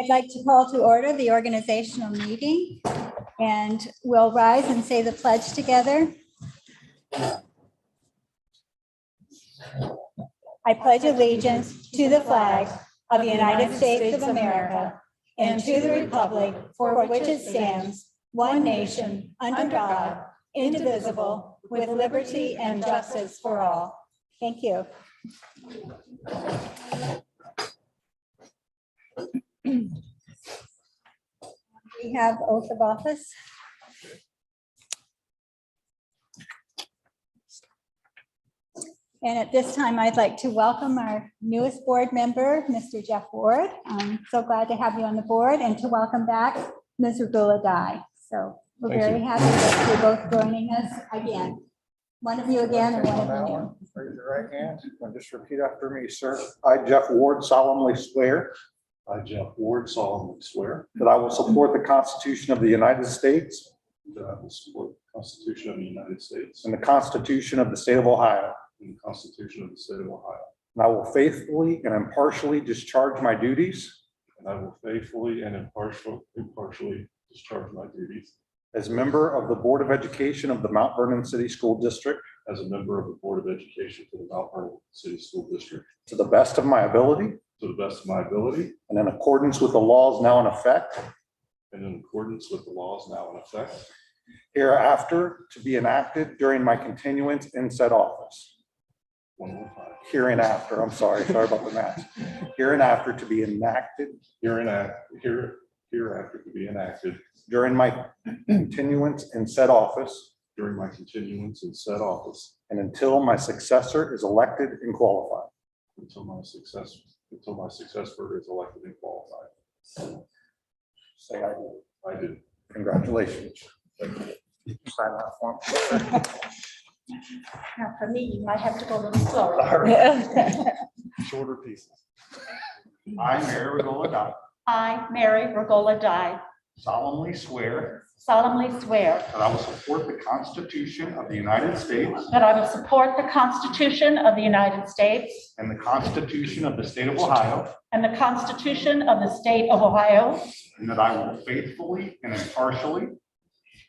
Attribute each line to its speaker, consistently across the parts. Speaker 1: I'd like to call to order the organizational meeting and we'll rise and say the pledge together. I pledge allegiance to the flag of the United States of America and to the republic for which it stands, one nation, under God, indivisible, with liberty and justice for all. Thank you. We have oath of office. And at this time, I'd like to welcome our newest board member, Mr. Jeff Ward. I'm so glad to have you on the board and to welcome back Ms. Ragula Dai. So we're
Speaker 2: Thank you.
Speaker 1: very happy that you're both joining us again. One of you again and one of you new.
Speaker 2: Raise your right hand and just repeat after me, sir. I, Jeff Ward, solemnly swear
Speaker 3: I, Jeff Ward, solemnly swear
Speaker 2: that I will support the Constitution of the United States
Speaker 3: that I will support the Constitution of the United States
Speaker 2: and the Constitution of the State of Ohio,
Speaker 3: and the Constitution of the State of Ohio,
Speaker 2: and I will faithfully and impartially discharge my duties
Speaker 3: and I will faithfully and impartial- impartially discharge my duties
Speaker 2: as member of the Board of Education of the Mount Vernon City School District
Speaker 3: as a member of the Board of Education for the Mount Vernon City School District
Speaker 2: to the best of my ability
Speaker 3: to the best of my ability
Speaker 2: and in accordance with the laws now in effect
Speaker 3: and in accordance with the laws now in effect
Speaker 2: hereafter to be enacted during my continuance in said office.
Speaker 3: one more time.
Speaker 2: Hereinafter, I'm sorry, sorry about the math. Hereinafter to be enacted
Speaker 3: Here enact, here, hereafter to be enacted
Speaker 2: during my continuance in said office
Speaker 3: during my continuance in said office
Speaker 2: and until my successor is elected and qualified.
Speaker 3: until my success, until my successor is elected and qualified.
Speaker 2: Say I do.
Speaker 3: I do.
Speaker 2: Congratulations. Sign that form.
Speaker 4: Now, for me, you might have to go a little slower.
Speaker 2: Sorry, Shorter pieces. I, Mary Regola Dye,
Speaker 4: I, Mary Regola Dye,
Speaker 2: solemnly swear
Speaker 4: solemnly swear
Speaker 2: that I will support the Constitution of the United States
Speaker 4: that I will support the Constitution of the United States
Speaker 2: and the Constitution of the State of Ohio,
Speaker 4: and the Constitution of the State of Ohio,
Speaker 2: and that I will faithfully and impartially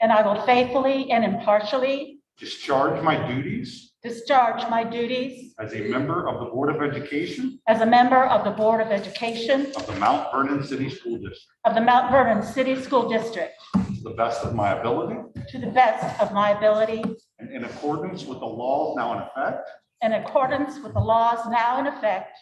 Speaker 4: and I will faithfully and impartially
Speaker 2: discharge my duties
Speaker 4: discharge my duties
Speaker 2: as a member of the Board of Education
Speaker 4: as a member of the Board of Education
Speaker 2: of the Mount Vernon City School District.
Speaker 4: of the Mount Vernon City School District
Speaker 2: To the best of my ability
Speaker 4: to the best of my ability
Speaker 2: and in accordance with the laws now in effect
Speaker 4: in accordance with the laws now in effect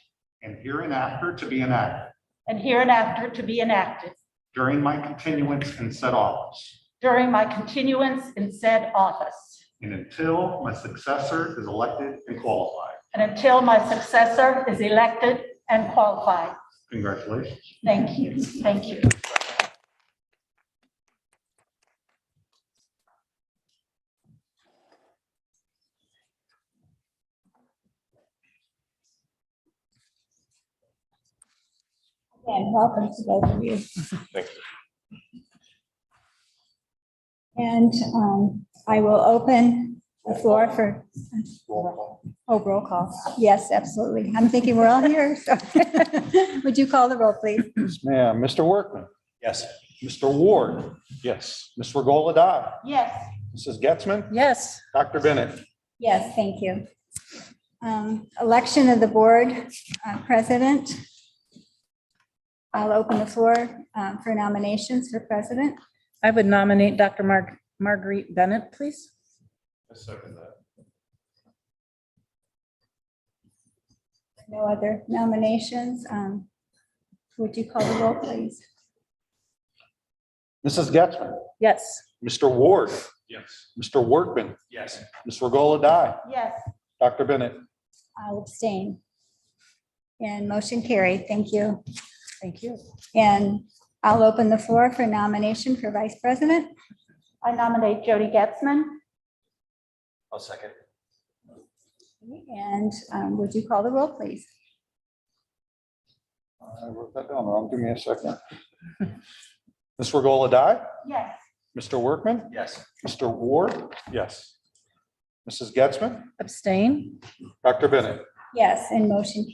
Speaker 2: and hereinafter to be enacted
Speaker 4: and hereinafter to be enacted
Speaker 2: during my continuance in said office
Speaker 4: during my continuance in said office.
Speaker 2: and until my successor is elected and qualified.
Speaker 4: and until my successor is elected and qualified.
Speaker 2: Congratulations.
Speaker 4: Thank you, thank you.
Speaker 1: And welcome to both of you. And um, I will open the floor for, oh, roll call. Yes, absolutely. I'm thinking we're all here. so. Would you call the roll, please?
Speaker 2: Yes, ma'am. Mr. Workman. Yes. Mr. Ward. Yes. Ms. Regola Dye.
Speaker 4: Yes,
Speaker 2: Mrs. Getzman. Yes. Dr. Bennett.
Speaker 1: Yes, thank you. Um, Election of the board uh, president. I'll open the floor um, for nominations for president.
Speaker 5: I would nominate Dr. Marg- Marguerite Bennett, please.
Speaker 3: I second that.
Speaker 1: No other nominations. Um, Would you call the roll, please?
Speaker 2: Mrs. Getzman.
Speaker 5: Yes,
Speaker 2: Mr. Ward.
Speaker 3: Yes.
Speaker 2: Mr. Workman.
Speaker 3: Yes.
Speaker 2: Ms. Regola Dye.
Speaker 4: yes,
Speaker 2: Dr. Bennett.
Speaker 1: I'll abstain. And motion carried. Thank you.
Speaker 5: thank you.
Speaker 1: And I'll open the floor for nomination for vice president.
Speaker 4: I nominate Jody Getzman.
Speaker 3: I'll second.
Speaker 1: And um, would you call the roll, please?
Speaker 2: I wrote that down wrong. Give me a second. Ms. Regola Dye,
Speaker 4: Yes,
Speaker 2: Mr. Workman,
Speaker 3: Yes.
Speaker 2: Mr. Ward,
Speaker 3: Yes.
Speaker 2: Mrs. Getzman,
Speaker 5: Abstain?
Speaker 2: Dr. Bennett.
Speaker 1: Yes, and motion